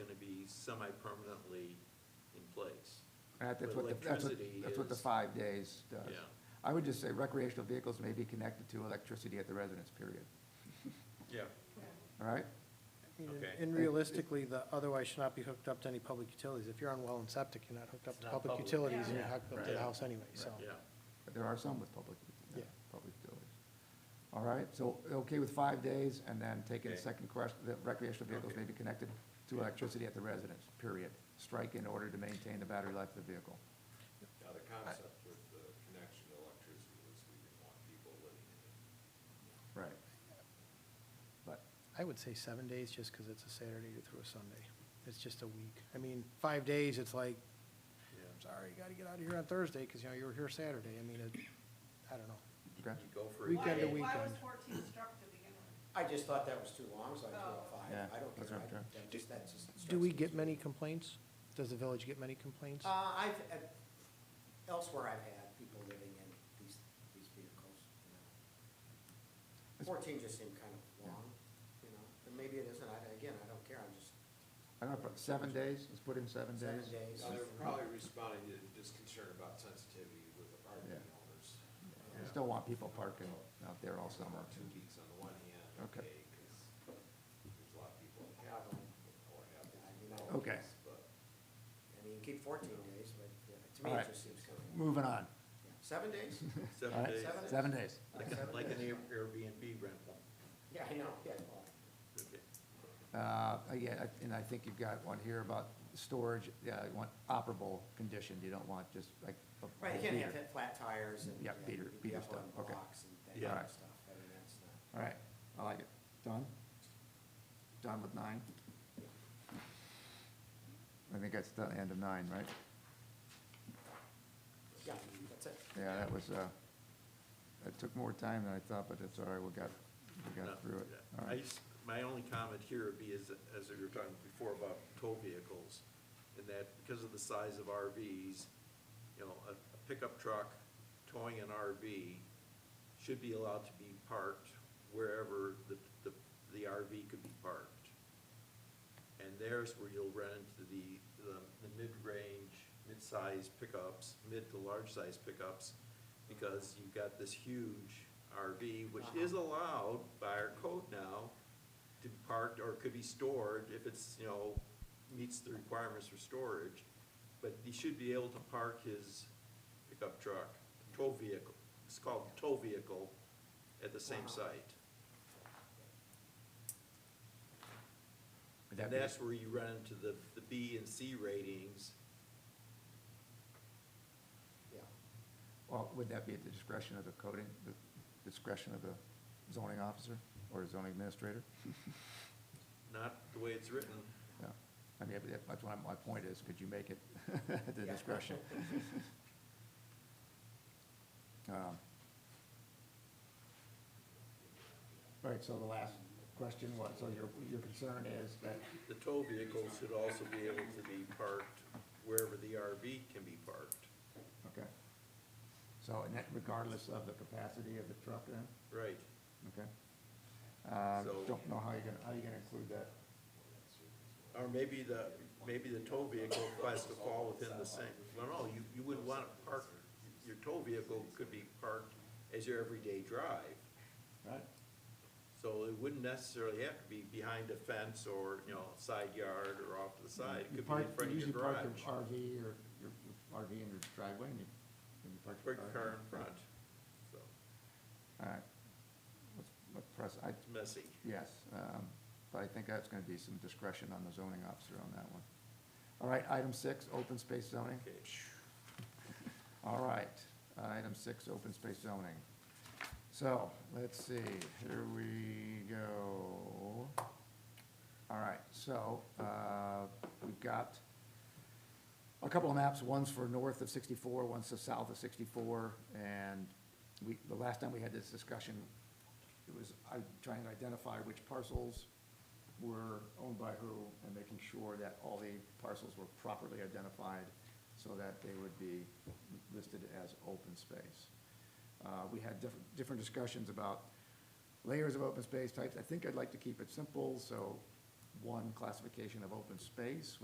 semi-permanently in place. Right, That's But what, the- that's what, electricity that's what the is- five days does. Yeah. I would just say recreational vehicles may be connected to electricity at the residence, period. Yeah. All right? You know, Okay. And realistically, the otherwise should not be hooked up to any public utilities. If you're on well and septic, you're not hooked up It's to not public public. utilities and you're Yeah. hooked up to Right. the house Oh, anyway, so. Yeah, But there are some with public, uh, Yeah. public utilities. All right, so okay with five days, and then taking the Okay. second question, that recreational vehicles may be connected to electricity at the residence, period. Strike in order to maintain the battery life of the vehicle. Now, the concept with the connection to electricity was we didn't want people living in it. Right. But, I would say seven days, just because it's a Saturday through a Sunday. It's just a week. I mean, five days, it's like, yeah. I'm sorry, you gotta get out of here on Thursday, because, you know, you were here Saturday. I mean, it, I don't know. okay, You go for it. Weekend to Why- Why was weekend. fourteen struck to begin with? I just thought that was too long, so I threw out five. Yeah, I don't that's care. what I'm I- trying. that just- that's just Do we stressful get to many me. complaints? Does the village get many complaints? Uh, I've, uh, elsewhere I've had people living in these, these vehicles, you know. Fourteen just seemed kind of long, you know, and maybe it isn't, I, again, I don't care, I'm just, I don't know, seven days, let's put in seven days. seven days. Now, they're probably responding to this concern about sensitivity with apartment Yeah. owners. Uh, I still want people parking out there all summer. Two weeks on the one hand, Okay. okay, because there's a lot of people that have them or have them. I mean, I- Okay. But I mean, keep fourteen days, but yeah, to All me, right. it just seems kind of, Moving on, yeah. seven days? Uh, all Seven right, days, Seven? seven days. like, a- like an Air- Airbnb rental. Yeah, I know, yeah, well, Okay. Uh, yeah, I- and I think you've got one here about storage, yeah, you want operable condition, you don't want just like. a- right, you can't have All hit flat tires and. Yeah, beater- you'd be beater up on stuff, okay. Blocks and that Yeah. kind Alright. of stuff, I mean, that's not. right, I like it. Done? Done with nine? I think that's the end of nine, right? Yeah, that's it. Yeah, that was, uh, it took more time than I thought, but it's all right, we got, we No, got through it. All I right. just- My only comment here would be is, as we were talking before about tow vehicles, and that because of the size of RVs, you know, a a pickup truck towing an RV should be allowed to be parked wherever the, the, the RV could be parked. And there's where you'll run into the, the, the mid-range, mid-size pickups, mid to large-size pickups, because you've got this huge RV, which is allowed by our code now to be parked or could be stored if it's, you know, meets the requirements for storage. But he should be able to park his pickup truck, tow vehicle, it's called tow vehicle, at the same site. Would that And be- that's where you run into the, the B and C ratings. Yeah. Well, would that be at the discretion of the coding, the discretion of the zoning officer or zoning administrator? not the way it's written. Yeah, I mean, that- that's what my point is, could you make it at the Yeah. discretion? Um, Right, so the last question was, so your, your concern is that, The tow vehicles should also be able to be parked wherever the RV can be parked. okay. So, and that regardless of the capacity of the truck then, Right. okay? Uh, So- don't know how you're gonna, how you're gonna include that. Or maybe the, maybe the tow vehicle has to fall within the same, well, no, you, you wouldn't want to park, your tow vehicle could be parked as your everyday drive. Right. So it wouldn't necessarily have to be behind a fence or, you know, side yard or off to the side. It could You be in park, you front of your usually garage. park your RV or your your RV in your driveway and you, and you park your Park car. your car in front, so, All right. Let's, let's press, I, it's messy. yes, um, but I think that's gonna be some discretion on the zoning officer on that one. All right, item six, open space zoning. Okay. All right, item six, open space zoning. So, let's see, here we go. All right, so, uh, we've got a couple of maps, one's for north of sixty-four, one's to south of sixty-four, and we, the last time we had this discussion, it was, I trying to identify which parcels were owned by who, and making sure that all the parcels were properly identified, so that they would be listed as open space. Uh, we had different, different discussions about layers of open space types, I think I'd like to keep it simple, so one classification of open space would